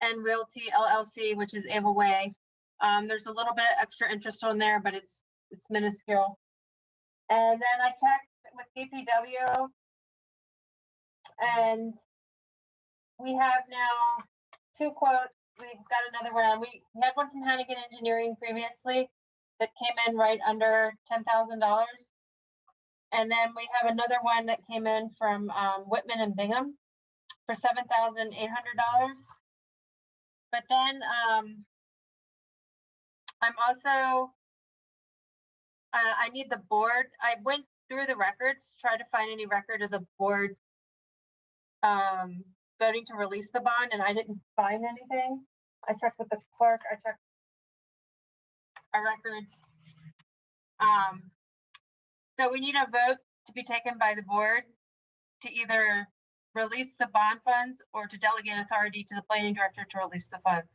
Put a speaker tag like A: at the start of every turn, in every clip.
A: Glen Realty LLC, which is Ava Way. Um, there's a little bit of extra interest on there, but it's, it's minuscule. And then I checked with DPW. And we have now two quotes. We've got another round. We we had one from Hannigan Engineering previously that came in right under ten thousand dollars. And then we have another one that came in from um, Whitman and Bingham for seven thousand eight hundred dollars. But then um, I'm also uh, I need the board. I went through the records to try to find any record of the board um, voting to release the bond, and I didn't find anything. I checked with the clerk. I checked our records. Um, so we need a vote to be taken by the board to either release the bond funds or to delegate authority to the planning director to release the funds.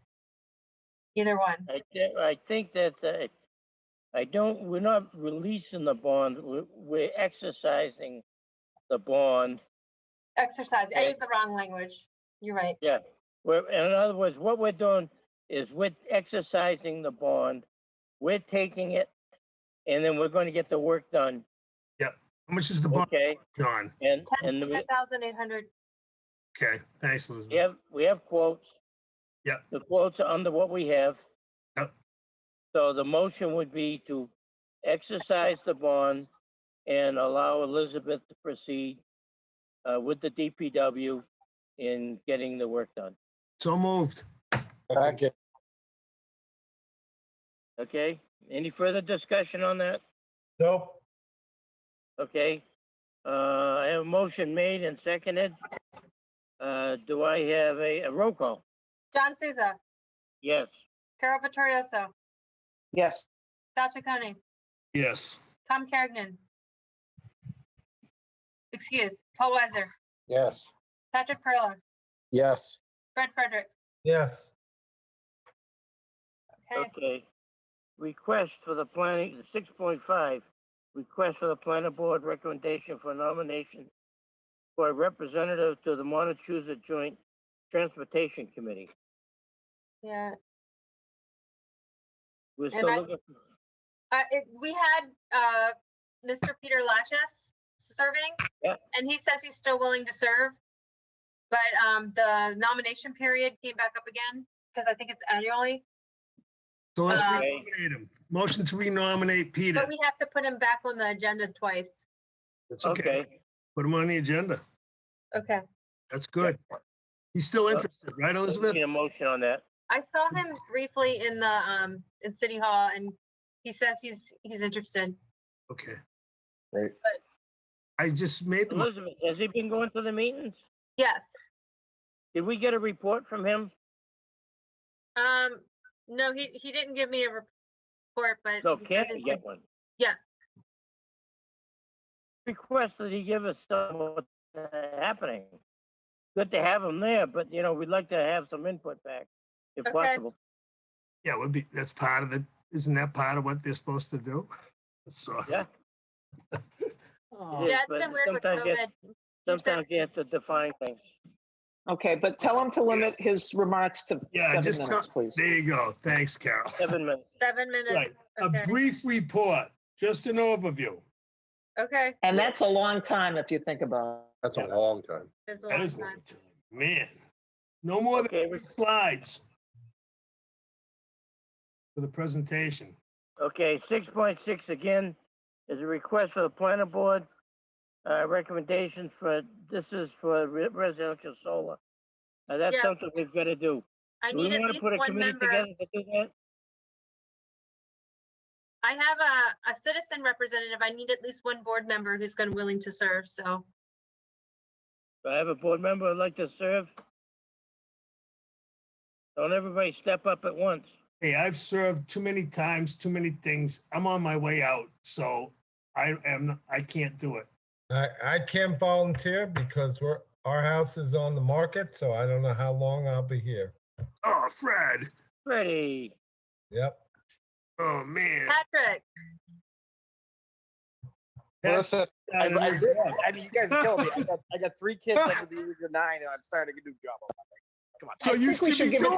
A: Either one.
B: I, thi- I think that, uh, I don't, we're not releasing the bond, we're, we're exercising the bond.
A: Exercise. I
B: Okay.
A: used the wrong language. You're right.
B: We're, in other words, what we're doing is we're exercising the bond, we're taking it, and then we're gonna get the work done,
C: How much is the bond,
B: okay?
C: John?
B: And,
A: Ten
B: and we
A: thousand eight hundred.
C: Okay, thanks,
B: we
C: Elizabeth.
B: have, we have quotes.
C: Yep.
B: The quotes are under what we have.
C: Yep.
B: So the motion would be to exercise the bond and allow Elizabeth to proceed uh, with the DPW in getting the work done,
C: So moved.
D: Second,
B: okay? Any further discussion on that?
D: no,
B: Okay, uh, I have a motion made and seconded. Uh, do I have a, a roll call?
A: John Souza,
B: Yes,
A: Carol Vittorioso,
E: yes,
A: Sasha Coney,
C: Yes.
A: Tom Carrigan. Excuse, Paul Weiser,
D: yes.
A: Patrick Perla,
D: Yes.
A: Fred Fredericks.
D: Yes.
A: Okay,
B: okay. Request for the planning, six point five, request for the planning board recommendation for nomination for a representative to the Montezuma Joint Transportation Committee.
A: yeah.
B: We're
A: And
B: still
A: I-
B: looking,
A: Uh, it, we had, uh, Mr. Peter Latches serving.
B: Yeah.
A: And he says he's still willing to serve. But, um, the nomination period came back up again, because I think it's annually,
C: So let's
A: Uh,
C: renominate him. Motion to renominate Peter.
A: but we have to put him back on the agenda twice.
C: That's okay.
B: okay,
C: Put him on the agenda.
A: Okay.
C: That's good. He's still interested, right, Elizabeth?
B: need a motion on that.
A: I saw him briefly in the, um, in City Hall and he says he's, he's interested.
C: Okay.
D: Great.
C: I just made the, mo-
B: Elizabeth, has he been going to the meetings?
A: Yes.
B: Did we get a report from him?
A: Um, no, he, he didn't give me a report, but.
B: So
A: he says
B: can we
A: he's-
B: get one?
A: Yes.
B: request that he give us some of what's uh, happening. Good to have him there, but you know, we'd like to have some input back if
A: Okay.
B: possible.
C: yeah, would be, that's part of the, isn't that part of what they're supposed to do? So.
B: Yeah.
A: Yeah, it's
B: but
A: been weird with
B: sometimes you have-
A: COVID. said-
B: Sometimes you have to define things.
E: okay, but tell him to limit his remarks to
C: Yeah,
E: seven
C: just
E: minutes, please.
C: There you go. Thanks, Carol.
B: Seven minutes.
A: Seven
C: Right.
A: minutes.
C: A
A: Okay.
C: brief report, just an overview.
A: Okay.
E: And that's a long time if you think about
D: That's a
C: Yeah.
D: long time.
A: There's a
C: That
A: long
C: is, a long
A: time.
C: time. man, no more than
B: Okay, we-
C: three slides for the presentation.
B: Okay, six point six again is a request for the planning board. Uh, recommendations for, this is for re- residential solar. Uh, that's
A: Yes.
B: something we've got to do.
A: I
B: Do we
A: need at
B: want to
A: least
B: put a
A: one
B: committee
A: member.
B: together to do that?
A: I have a, a citizen representative. I need at least one board member who's going to willing to serve. So
B: Do I have a board member who'd like to serve? Don't everybody step up at once.
C: Hey, I've served too many times, too many things. I'm on my way out, so I am, I can't do it.
F: I, I can't volunteer because we're, our house is on the market, so I don't know how long I'll be here.
C: Oh, Fred,
B: Ready?
F: Yep.
C: oh, man.
A: Patrick,
C: That's-
D: Listen, I, I did, I mean, you guys killed me. I got, I got three kids under the age of nine and I'm starting a new job. on Monday. Come on.
C: So
E: I
C: you
E: think we
C: should
E: should
C: be
E: give it
C: doing